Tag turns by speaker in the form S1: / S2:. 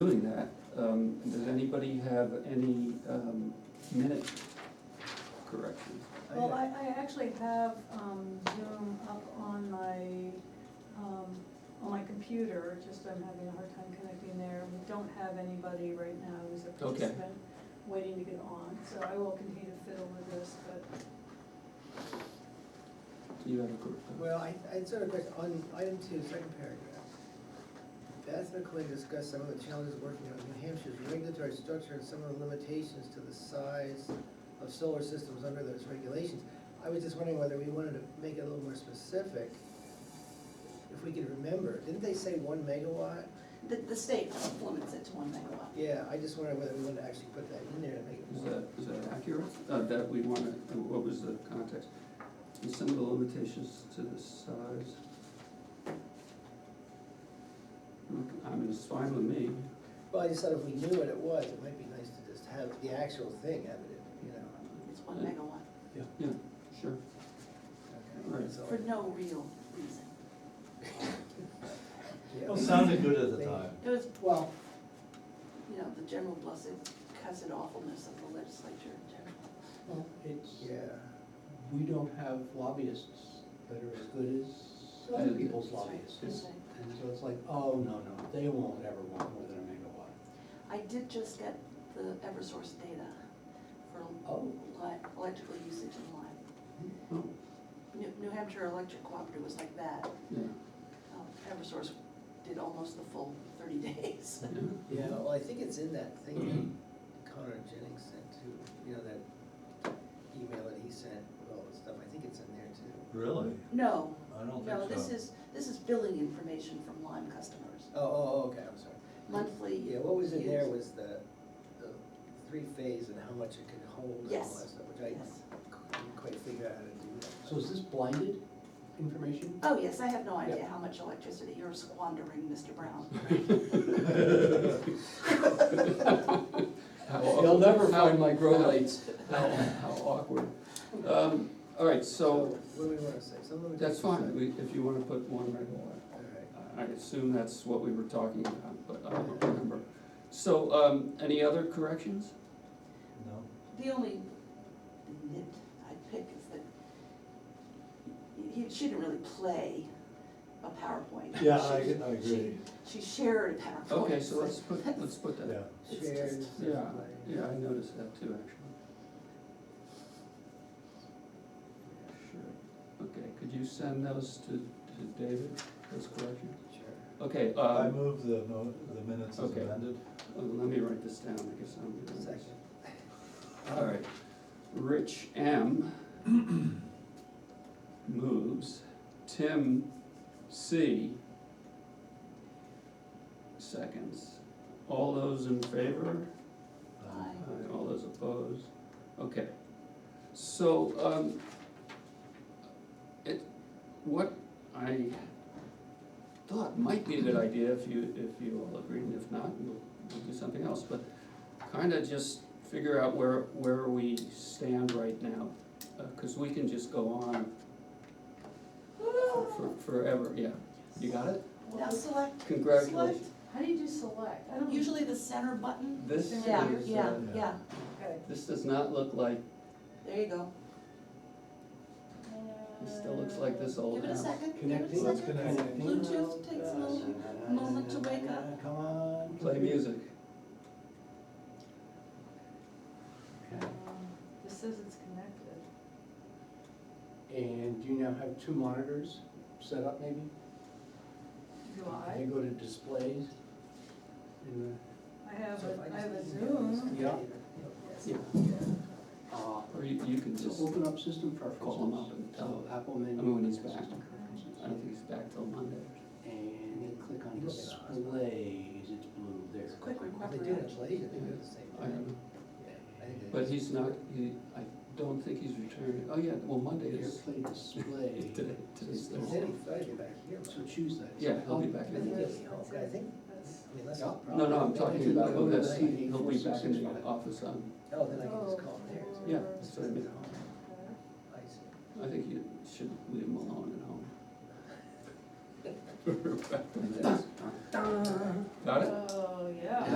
S1: um, anybody have any, um, minute corrections?
S2: Well, I, I actually have um, Zoom up on my, um, on my computer, just I'm having a hard time connecting there. We don't have anybody right now who's a
S1: Okay.
S2: participant waiting to get on, so I will continue to fiddle with this, but
S1: Do you have a correction?
S3: Well, I, I sort of question, on item two, second paragraph. Beth McCoy discussed some of the challenges working on New Hampshire's regulatory structure and some of the limitations to the size of solar systems under those regulations. I was just wondering whether we wanted to make it a little more specific, if we could remember, didn't they say one megawatt?
S4: The, the state limits it to one megawatt.
S3: Yeah, I just wondered whether we wanted to actually put that in there to make it
S1: Is
S3: more.
S1: that, is that accurate? Uh, that we wanna, what was the context? And some of the limitations to the size? I mean, it's fine with me.
S3: Well, I just thought if we knew what it was, it might be nice to just have the actual thing evident, you know?
S4: It's one megawatt,
S1: Yeah, sure.
S3: Okay,
S1: Right.
S3: so-
S4: for no real reason.
S3: yeah.
S5: Well, sounded good at the time.
S4: It was,
S3: Well,
S4: you know, the general blessed cussed awfulness of the legislature in general.
S6: Well, it's,
S3: yeah.
S6: we don't have lobbyists that are as good as other people's lobbyists.
S4: That's right.
S6: And so it's like, oh, no, no, they won't ever want more than a megawatt.
S4: I did just get the Eversource data for
S6: Oh.
S4: li- electrical usage in Lyme.
S1: Oh,
S4: New, New Hampshire Electric Cooperative was like that.
S1: yeah,
S4: Um, Eversource did almost the full thirty days.
S1: yeah.
S3: Yeah, well, I think it's in that thing that Connor Jennings sent too, you know, that email that he sent with all the stuff, I think it's in there too.
S5: Really?
S4: No,
S5: I don't think so.
S4: no, this is, this is billing information from Lyme customers,
S3: Oh, oh, oh, okay, I'm sorry.
S4: monthly.
S3: Yeah, what was in there
S4: use.
S3: was the, the three phase and how much it could hold and all
S4: Yes,
S3: that stuff, which I
S4: Yes.
S3: couldn't quite figure out how to do that.
S6: So is this blinded information?
S4: Oh, yes, I have no idea
S6: Yeah.
S4: how much electricity you're squandering, Mr. Brown.
S1: How aw-
S6: They'll never
S1: how-
S6: find my grow
S1: how-
S6: lights.
S1: How, how awkward. Um, all right, so
S3: What do we wanna say, some limitations?
S1: that's fine, we, if you wanna put one megawatt.
S3: All right,
S1: I assume that's what we were talking about, but I don't remember. So, um, any other corrections?
S5: No.
S4: The only nit I'd pick is that he, she didn't really play a PowerPoint.
S5: Yeah, I, I
S4: She-
S5: agree,
S4: She she shared a PowerPoint.
S1: Okay, so let's put, let's put
S5: yeah.
S1: that.
S4: It's
S3: shares.
S4: just-
S1: Yeah, yeah, I noticed that too, actually. Sure, okay, could you send those to, to David, those corrections?
S3: Sure.
S1: Okay,
S5: I
S1: um,
S5: move the mo, the minutes as
S1: Okay.
S5: amended.
S1: oh, let me write this down, I guess I'm. gonna-
S3: Second.
S1: All right, Rich M moves, Tim C seconds. All those in favor?
S4: Aye.
S1: Aye, All those opposed? Okay. So, um, it, what I thought might be a good idea, if you, if you all agreed, and if not, we'll, we'll do something else, but kinda just figure out where, where we stand right now, Uh 'cause cause we can just go on for- for, forever, yeah. You got it?
S4: Now select,
S1: Congratulations.
S2: how do you do select? I don't
S4: usually the center button.
S1: This is,
S4: Yeah, yeah,
S1: uh,
S4: yeah,
S2: Okay.
S1: this does not look like,
S4: there you go.
S1: this still looks like this old
S4: Give it a
S1: house.
S4: second, give it a
S6: Connecting.
S5: Let's
S4: second.
S5: connect.
S4: Bluetooth takes a little moment to wake up.
S6: Come on.
S1: Play music.
S6: Okay.
S2: Um, This says it's connected.
S6: And you now have two monitors set up maybe?
S2: Do I?
S6: You go to displays in
S2: I have,
S3: So if I
S2: a I
S3: just
S2: have a
S3: email this
S2: Zoom.
S3: to
S6: Yeah.
S3: David, he'll-
S2: Yes.
S1: Yeah.
S6: the, uh,
S1: Or you, you can
S6: So
S1: just,
S6: open up system preferences.
S1: Call him up and tell him.
S6: So Apple menu.
S1: I mean, when he's
S6: and
S1: back.
S6: system preferences.
S1: I don't think he's back till Monday.
S6: And then click on displays, it's blue there.
S4: It's a quick
S3: If
S4: request.
S3: They do it later, they do it the same
S1: I don't
S3: thing.
S1: know.
S3: Yeah, I think it
S1: But
S3: is.
S1: he's not, he, I don't think he's returning. Oh, yeah, well, Monday is,
S6: Airplay display.
S1: today, today's
S3: If He's in,
S1: Thursday.
S3: he's gotta get back here.
S6: So choose that. Oh.
S1: Yeah, he'll be back
S3: I
S1: in
S3: think
S1: Monday.
S3: it's, I think,
S2: That's-
S3: I mean, that's.
S6: Yeah.
S1: No, no, I'm talking about, oh, that's,
S3: Oh,
S1: he'll be back in the office on,
S3: then I can just call him there. too.
S1: yeah, that's what I mean.
S2: okay.
S3: I see.
S1: I think you should leave him alone at home. Got it?
S2: Oh, yeah.